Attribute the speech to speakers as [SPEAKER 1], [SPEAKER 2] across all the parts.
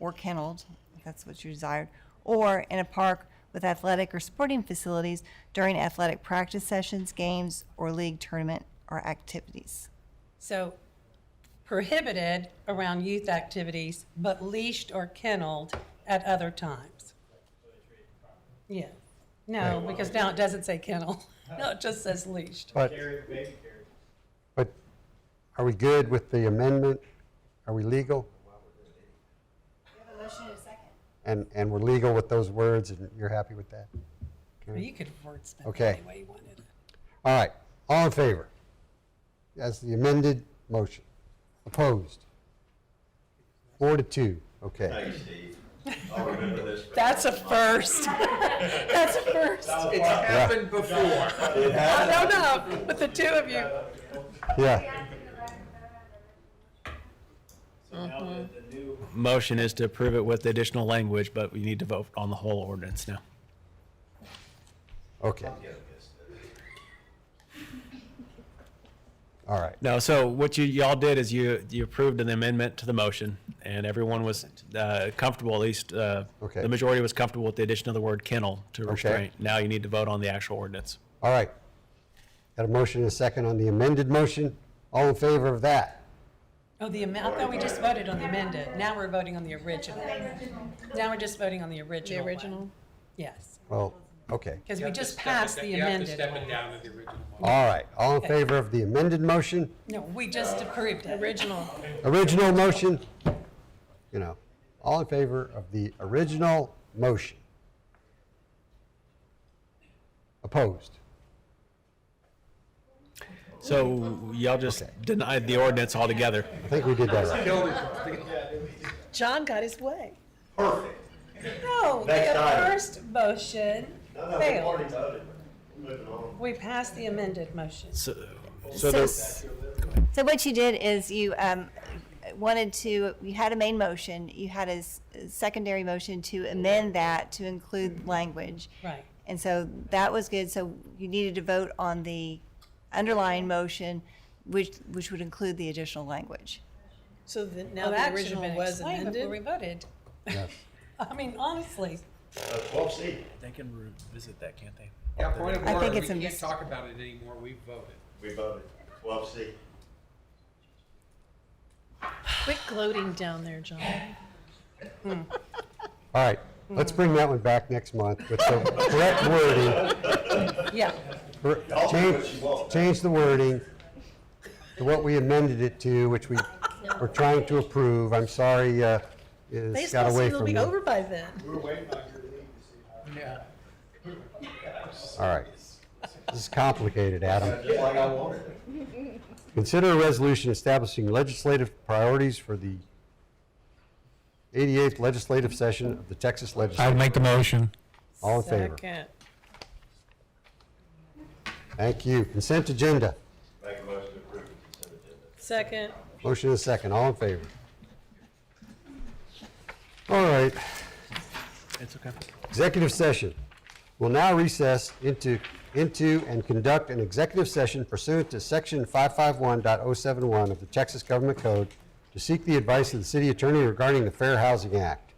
[SPEAKER 1] or kenneled, if that's what you desired, or in a park with athletic or sporting facilities during athletic practice sessions, games, or league tournament or activities.
[SPEAKER 2] So prohibited around youth activities, but leashed or kenneled at other times. Yeah, no, because now it doesn't say kennel, no, it just says leashed.
[SPEAKER 3] But, but are we good with the amendment? Are we legal? And, and we're legal with those words, and you're happy with that?
[SPEAKER 2] You could wordsmith
[SPEAKER 3] Okay.
[SPEAKER 2] it any way you wanted.
[SPEAKER 3] All right, all in favor? That's the amended motion. Opposed? Four to two, okay.
[SPEAKER 4] Thanks, Steve. I'll remember this.
[SPEAKER 2] That's a first. That's a first.
[SPEAKER 5] It's happened before.
[SPEAKER 2] I don't know, but the two of you,
[SPEAKER 3] Yeah,
[SPEAKER 6] So now that the new
[SPEAKER 5] Motion is to approve it with the additional language, but we need to vote on the whole ordinance now.
[SPEAKER 3] okay. All right,
[SPEAKER 5] No, so what you y'all did is you you approved an amendment to the motion, and everyone was uh, comfortable. At least uh,
[SPEAKER 3] Okay.
[SPEAKER 5] the majority was comfortable with the addition of the word kennel to restraint. Now you need to vote on the actual ordinance.
[SPEAKER 3] all right. Got a motion and a second on the amended motion. All in favor of that?
[SPEAKER 2] oh, the amendment, I thought we just voted on the amended, now we're voting on the original. Now we're just voting on the original
[SPEAKER 7] The
[SPEAKER 2] one.
[SPEAKER 7] original?
[SPEAKER 2] Yes,
[SPEAKER 3] Well, okay.
[SPEAKER 2] because
[SPEAKER 8] You
[SPEAKER 2] we
[SPEAKER 8] have to
[SPEAKER 2] just
[SPEAKER 8] step it
[SPEAKER 2] passed
[SPEAKER 8] da-
[SPEAKER 2] the
[SPEAKER 8] you have to
[SPEAKER 2] amended
[SPEAKER 8] step it
[SPEAKER 2] one.
[SPEAKER 8] down to the original one.
[SPEAKER 3] All right, all in favor of the amended motion,
[SPEAKER 2] No, we just
[SPEAKER 8] Uh,
[SPEAKER 2] approved it.
[SPEAKER 7] Original.
[SPEAKER 3] original motion? You know, all in favor of the original motion? Opposed?
[SPEAKER 5] So y'all just denied the ordinance altogether.
[SPEAKER 3] I think we did that right.
[SPEAKER 7] John got his way.
[SPEAKER 4] Perfect.
[SPEAKER 2] No,
[SPEAKER 4] Next
[SPEAKER 2] the
[SPEAKER 4] item.
[SPEAKER 2] first motion
[SPEAKER 4] No, no, we
[SPEAKER 2] failed.
[SPEAKER 4] already voted. We're Moving on.
[SPEAKER 2] We passed the amended motion.
[SPEAKER 5] So,
[SPEAKER 1] So,
[SPEAKER 5] so, the,
[SPEAKER 1] s- so what you did is you um, wanted to, you had a main motion, you had a s- secondary motion to amend that to include language.
[SPEAKER 2] Right.
[SPEAKER 1] And so that was good, so you needed to vote on the underlying motion, which, which would include the additional language.
[SPEAKER 7] So the,
[SPEAKER 2] Now that
[SPEAKER 7] now
[SPEAKER 2] should
[SPEAKER 7] the
[SPEAKER 2] have
[SPEAKER 7] original
[SPEAKER 2] been
[SPEAKER 7] was
[SPEAKER 2] explained before we
[SPEAKER 7] amended?
[SPEAKER 2] voted.
[SPEAKER 3] Yes.
[SPEAKER 2] I mean, honestly,
[SPEAKER 4] So Uh, twelve C.
[SPEAKER 5] they can revisit that, can't they?
[SPEAKER 8] Yeah, point of
[SPEAKER 1] I think
[SPEAKER 8] order,
[SPEAKER 1] it's a
[SPEAKER 8] we can't
[SPEAKER 1] mis-
[SPEAKER 8] talk about it anymore, we voted.
[SPEAKER 4] We voted. Twelve C.
[SPEAKER 7] Quit gloating down there, John.
[SPEAKER 3] All right, let's bring that one back next month with the correct wording.
[SPEAKER 2] yeah,
[SPEAKER 3] Cor-
[SPEAKER 4] I'll do what you
[SPEAKER 3] Change,
[SPEAKER 4] want.
[SPEAKER 3] change the wording to what we amended it to, which we were trying to approve. I'm sorry, uh, it's got
[SPEAKER 7] Baseball
[SPEAKER 3] away
[SPEAKER 7] season will
[SPEAKER 3] from
[SPEAKER 7] be
[SPEAKER 3] me.
[SPEAKER 7] over by then.
[SPEAKER 6] we're waiting on your league to see how.
[SPEAKER 8] Yeah.
[SPEAKER 3] All right. This is complicated, Adam.
[SPEAKER 4] Just like I wanted it.
[SPEAKER 3] Consider a resolution establishing legislative priorities for the 88th legislative session of the Texas
[SPEAKER 9] I'd
[SPEAKER 3] Legislature.
[SPEAKER 9] make the motion.
[SPEAKER 3] All in favor?
[SPEAKER 7] Second.
[SPEAKER 3] Thank you. Consent agenda.
[SPEAKER 4] Make a motion to approve the consent agenda.
[SPEAKER 7] Second.
[SPEAKER 3] Motion is second. All in favor? All right.
[SPEAKER 5] It's okay.
[SPEAKER 3] Executive session. Will now recess into, into and conduct an executive session pursuant to section 551.071 of the Texas Government Code to seek the advice of the city attorney regarding the Fair Housing Act.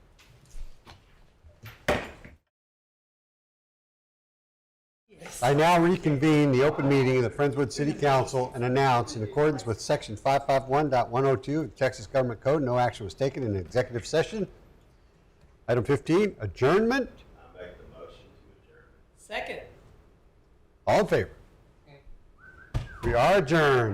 [SPEAKER 3] I now reconvene the open meeting of the Friendswood City Council and announce, in accordance with section 551.102 of the Texas Government Code, no action was taken in executive session. Item 15, adjournment.
[SPEAKER 4] I make the motion to adjourn.
[SPEAKER 2] second.
[SPEAKER 3] All in favor? We are adjourned.